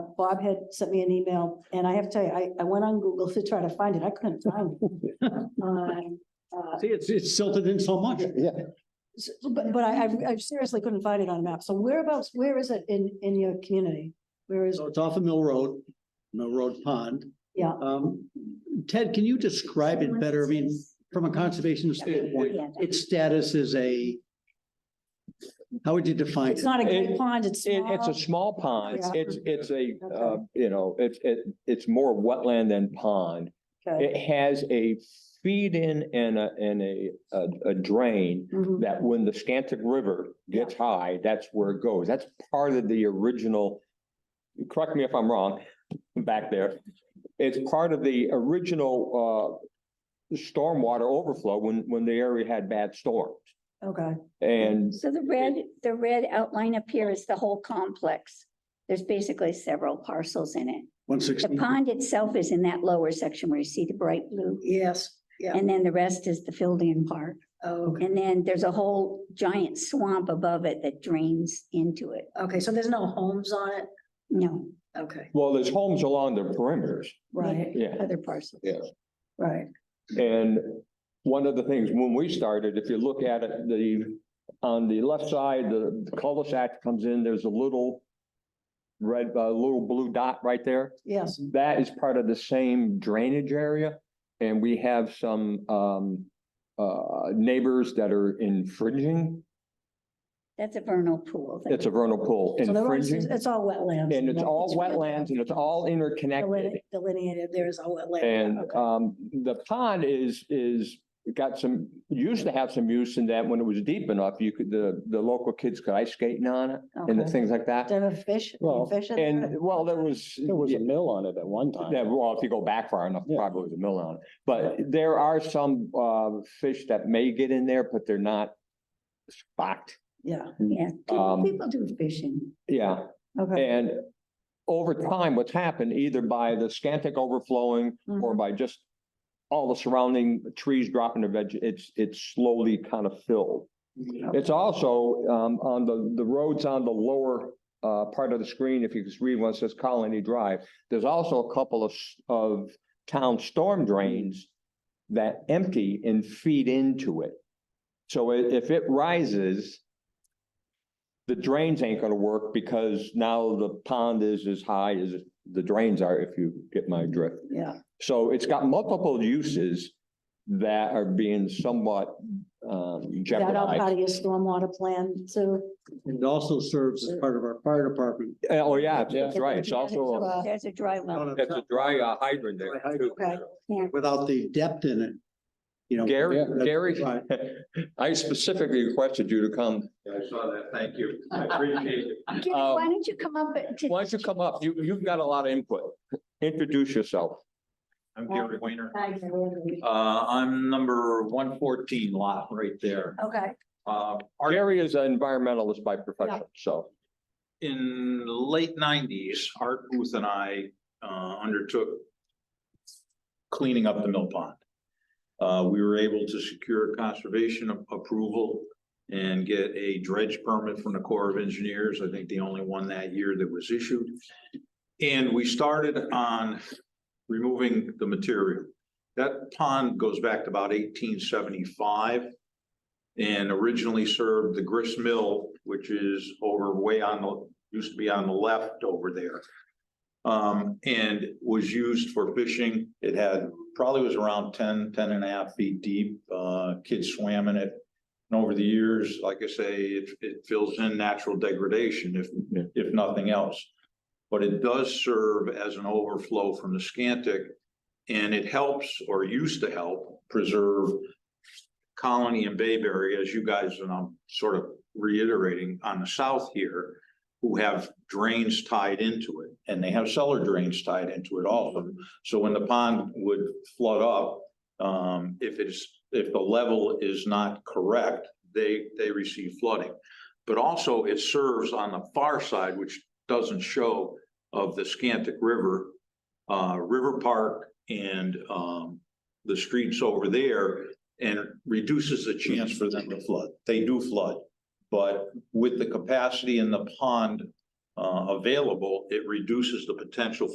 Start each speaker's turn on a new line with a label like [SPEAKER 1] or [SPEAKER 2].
[SPEAKER 1] Bob had sent me an email, and I have to tell you, I, I went on Google to try to find it. I couldn't find it. Um, uh,
[SPEAKER 2] See, it's, it's silted in so much.
[SPEAKER 3] Yeah,
[SPEAKER 1] s- But, but I, I- I seriously couldn't find it on a map. So whereabouts, where is it in, in your community? Where is,
[SPEAKER 2] So it's off of Mill Road, Mill Road Pond.
[SPEAKER 1] yeah,
[SPEAKER 2] Um, Ted, can you describe it better? I mean, from a conservation standpoint, its status is a, how would you define
[SPEAKER 1] it's
[SPEAKER 2] it?
[SPEAKER 1] not a great
[SPEAKER 3] It-
[SPEAKER 1] pond, it's
[SPEAKER 3] it,
[SPEAKER 1] small.
[SPEAKER 3] it's a small pond.
[SPEAKER 1] Yeah.
[SPEAKER 3] It's, it's a, uh,
[SPEAKER 1] Okay.
[SPEAKER 3] you know, it's, it, it's more wetland than pond.
[SPEAKER 1] Okay.
[SPEAKER 3] It has a feed in and a, and a, a- a drain
[SPEAKER 1] Mhm.
[SPEAKER 3] that when the Scantic River gets high, that's where it goes. That's part of the original. Correct me if I'm wrong, back there. It's part of the original, uh, stormwater overflow when, when the area had bad storms.
[SPEAKER 1] Okay,
[SPEAKER 3] And
[SPEAKER 4] So the red, the red outline up here is the whole complex. There's basically several parcels in it.
[SPEAKER 2] One
[SPEAKER 4] The
[SPEAKER 3] Mm-hmm.
[SPEAKER 2] sixteen?
[SPEAKER 4] pond itself is in that lower section where you see the bright blue.
[SPEAKER 1] yes, yeah,
[SPEAKER 4] And then the rest is the filled-in part.
[SPEAKER 1] okay.
[SPEAKER 4] And then there's a whole giant swamp above it that drains into it.
[SPEAKER 1] Okay, so there's no homes on it?
[SPEAKER 4] No,
[SPEAKER 1] Okay.
[SPEAKER 3] Well, there's homes along the perimeters,
[SPEAKER 1] Right,
[SPEAKER 3] yeah.
[SPEAKER 4] other parcels.
[SPEAKER 1] right.
[SPEAKER 3] And one of the things, when we started, if you look at it, the, on the left side, the the cul-de-sac comes in, there's a little red, a little blue dot right there.
[SPEAKER 1] Yes,
[SPEAKER 3] That is part of the same drainage area. And we have some, um, uh, neighbors that are infringing.
[SPEAKER 4] That's a vernal pool.
[SPEAKER 3] It's a vernal pool,
[SPEAKER 1] so there was,
[SPEAKER 3] infringing.
[SPEAKER 1] it's all wetlands.
[SPEAKER 3] And it's
[SPEAKER 1] right?
[SPEAKER 3] all wetlands and it's all interconnected.
[SPEAKER 1] deline- Delineated, there is all wetland.
[SPEAKER 3] And
[SPEAKER 1] Okay.
[SPEAKER 3] um, the pond is, is, got some, used to have some use in that when it was deep enough, you could, the, the local kids could ice skating on it and the
[SPEAKER 1] Okay.
[SPEAKER 3] things like that.
[SPEAKER 1] Do you have a fish?
[SPEAKER 2] Well,
[SPEAKER 1] fish in there?
[SPEAKER 3] And, well, there was.
[SPEAKER 2] There was a mill on it at one
[SPEAKER 3] Yeah,
[SPEAKER 2] time.
[SPEAKER 3] well, if you go back far enough,
[SPEAKER 2] Yeah.
[SPEAKER 3] probably was a mill on it. But there are some uh, fish that may get in there, but they're not spocked.
[SPEAKER 1] Yeah,
[SPEAKER 4] Yeah,
[SPEAKER 3] Um,
[SPEAKER 4] people, people do fishing.
[SPEAKER 3] Yeah.
[SPEAKER 1] okay.
[SPEAKER 3] And over time, what's happened, either by the Scantic overflowing or
[SPEAKER 1] Mhm.
[SPEAKER 3] by just all the surrounding trees dropping their veg, it's, it's slowly kind of filled. It's also, um, on the, the roads on the lower, uh, part of the screen, if you can read one, it says Colony Drive. There's also a couple of, s- of town storm drains that empty and feed into it. So i- if it rises, the drains ain't gonna work because now the pond is as high as the drains are, if you get my drift.
[SPEAKER 1] Yeah,
[SPEAKER 3] So it's got multiple uses that are being somewhat um,
[SPEAKER 1] Is that all part
[SPEAKER 3] jeopardized.
[SPEAKER 1] of your stormwater plan too?
[SPEAKER 2] It also serves as part of our fire department.
[SPEAKER 3] Uh, Oh, yeah, that's right. It's also, a-
[SPEAKER 1] Uh,
[SPEAKER 4] There's a dry well.
[SPEAKER 3] it's a dry uh, hydrant there too.
[SPEAKER 1] Okay,
[SPEAKER 2] Without the depth in it, you know.
[SPEAKER 3] Gary,
[SPEAKER 2] that's
[SPEAKER 3] Gary,
[SPEAKER 2] right.
[SPEAKER 3] I specifically requested you to come. I saw that. Thank you. I appreciate it.
[SPEAKER 4] Gary, why don't you come up to?
[SPEAKER 3] uh, Why don't you come up? You, you've got a lot of input. Introduce yourself.
[SPEAKER 5] I'm Gary Weiner.
[SPEAKER 4] Hi, Gary.
[SPEAKER 5] Uh, I'm number one fourteen lot right there.
[SPEAKER 4] Okay.
[SPEAKER 5] Uh, our-
[SPEAKER 3] Gary is an environmentalist by profession, so.
[SPEAKER 5] in the late nineties, Art Booth and I, uh, undertook cleaning up the mill pond. Uh, we were able to secure conservation a- approval and get a dredge permit from the Corps of Engineers. I think the only one that year that was issued. And we started on removing the material. That pond goes back to about eighteen seventy-five and originally served the grist mill, which is over way on the, used to be on the left over there. Um, and was used for fishing. It had, probably was around 10, 10 and a half feet deep. Uh, kids swam in it. And over the years, like I say, it, it fills in natural degradation if,
[SPEAKER 3] Yeah.
[SPEAKER 5] if nothing else. But it does serve as an overflow from the Scantic and it helps or used to help preserve Colony and Bayberry, as you guys, and I'm sort of reiterating on the south here, who have drains tied into it, and they have cellar drains tied into it, all of them. So when the pond would flood up, um, if it's, if the level is not correct, they, they receive flooding. But also it serves on the far side, which doesn't show of the Scantic River, uh, River Park and, um, the streets over there and it reduces the chance for them to flood. They do flood. But with the capacity in the pond, uh, uh, available, it reduces the potential